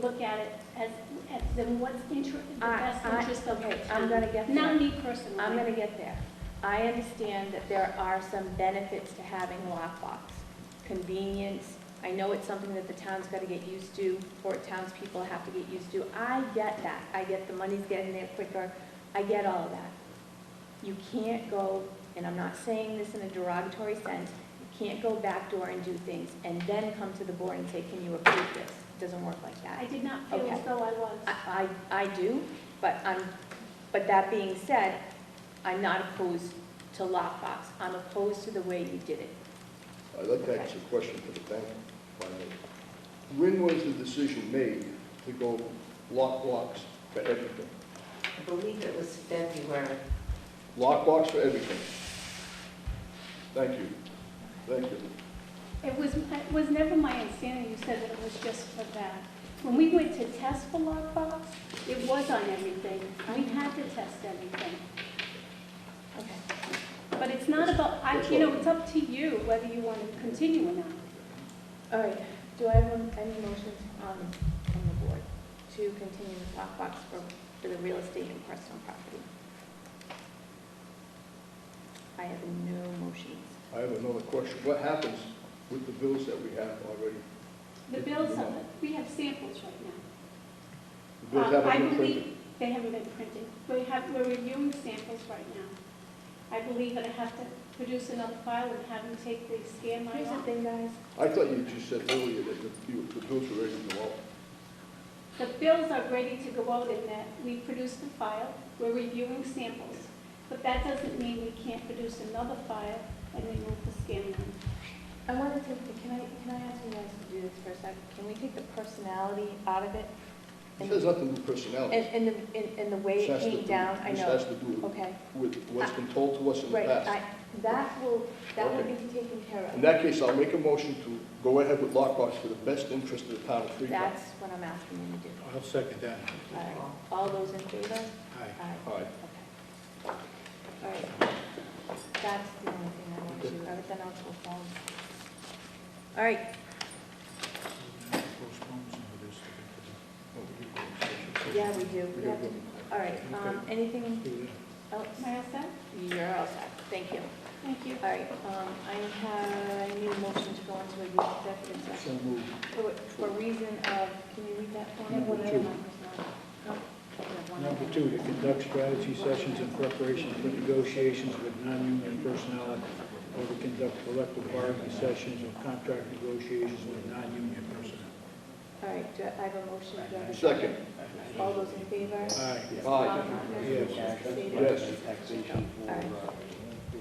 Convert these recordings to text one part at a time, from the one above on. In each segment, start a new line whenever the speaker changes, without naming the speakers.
look at it as, at the what's inter, the
I-
best
I-
interest of the
okay, I'm
town.
gonna get there.
Not me personally.
I'm gonna get there. I understand that there are some benefits to having lockbox. Convenience, I know it's something that the town's gotta get used to, or townspeople have to get used to. I get that. I get the money's getting there quicker. I get all of that. You can't go, and I'm not saying this in a derogatory sense, you can't go backdoor and do things and then come to the board and say, can you approve this? It Doesn't work like that.
I did not feel as
Okay.
though I was.
I, I I do, but I'm, but that being said, I'm not opposed to lockbox. I'm opposed to the way you did it.
I'd like to ask a question to the bank. if I may. When was the decision made to go lock blocks for everything?
I believe it was February.
Lock blocks for everything? Thank you. Thank you.
It was, it was never my understanding you said that it was just for that. When we went to test for lockbox, it was on everything. We had to test everything.
Okay.
But it's not about, I, you know, it's up to you whether you want to continue or not.
All right, do I have um, any motions on, on the board to continue with lockbox for, for the real estate and personal property? I have no motions.
I have another question. What happens with the bills that we have already?
The bills, are- we have samples right now.
The bills
Um, I
haven't been
believe
printed.
They haven't been printed. We have, we're reviewing samples right now. I believe that I have to produce another file and have them take the scan line
Here's the
off.
thing, guys.
I thought you just said earlier that the, you- the bills were ready to go out.
The bills are ready to go out in that we produced the file, we're reviewing samples. But that doesn't mean we can't produce another file and remove the scan line.
I want to take, the- can I, can I ask you guys to do this for a second? Can we take the personality out of it?
It
And-
has nothing to do with personnel.
And, and the, and, and the way it
This has to
came
do-
down, I
this
know,
has to do
okay,
with what's been told to us in the
right,
past.
I, that will, that will be
Okay.
taken care
In
of.
that case, I'll make a motion to go ahead with lockbox for the best interest of the town of Freetown.
That's what I'm asking you to do.
I'll second that.
All right, all those in favor?
Aye.
Aye,
Aye.
okay. All right, that's the only thing I want to do, everything else will fall. All right,
Postpone some of this to
yeah, we do,
We
we have to,
gotta go.
all right, um, anything
get it. Do
else?
Am I all set?
You're all set, thank you.
Thank you.
All right, um, I have, I need a motion to go into executive
that.
session.
So moved.
For for reason of, can you read that for me?
Number two.
No. Oh, One
Number
other.
two, to conduct strategy sessions in preparation for negotiations with non-union personnel or to conduct collective bargaining sessions or contract negotiations with non-union personnel.
All right, do I I have a motion? Do I have a
Second.
All those in favor?
Aye.
Aye. Yes.
Yes.
All right.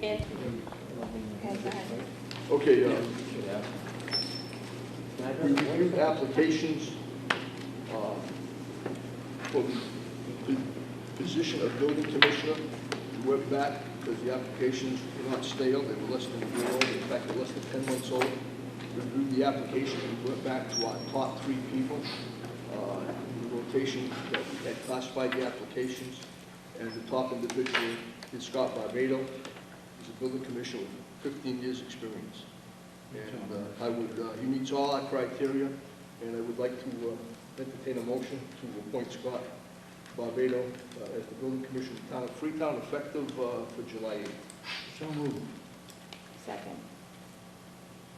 And, okay, go ahead.
Okay, uh, we reviewed applications, uh, for the position of building commissioner. We went back because the applications were not stale, they were less than a year old, in fact, they're less than ten months old. We Reviewed the application, we went back to our top three people, uh, the rotation that we had classified the applications. And the top individual is Scott Barbado, He's a building commissioner with 15 years' experience. And uh, I would, uh, he meets all our criteria, and I would like to uh, entertain a motion to appoint Scott Barbado uh, as the building commissioner of the town of Freetown, effective uh, for July 8th.
So moved.
Second.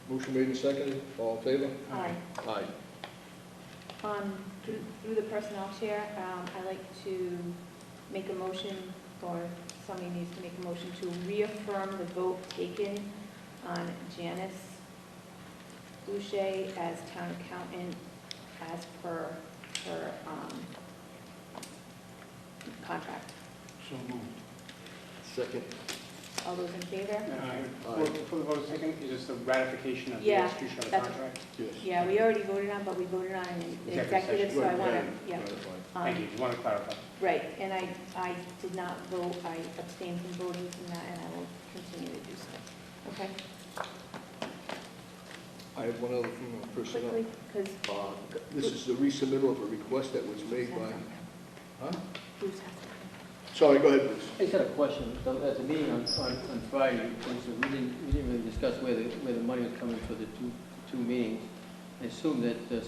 Motion made and seconded, all in favor?
All right.
Aye.
Um, through, through the personnel chair, um, I'd like to make a motion, or somebody needs to make a motion to reaffirm the vote taken on Janice Boucher as town accountant as per her, um, contract.
So moved.
Second.
All those in favor?
Aye.
Aye.
For the vote taken, is this the ratification of the
Yeah,
execution of the
that's-
contract?
Yes.
Yeah, we already voted on, but we voted on an executive,
Executive
so I
Right,
wanna,
right,
yeah.
right, right.
um,
Thank you, just wanted to clarify.
Right, and I, I did not vote, I abstained from voting from that, and I will continue to do so. Okay,
I have one other thing on personnel.
quickly, because
Uh, This is the resubmittal of a request that was made by, huh?
Bruce has something.
Sorry, go ahead, Bruce.
I just had a question. So At the meeting on, on, on Friday, we said we didn't, we didn't really discuss where the, where the money was coming for the two, two meetings. I assume that uh,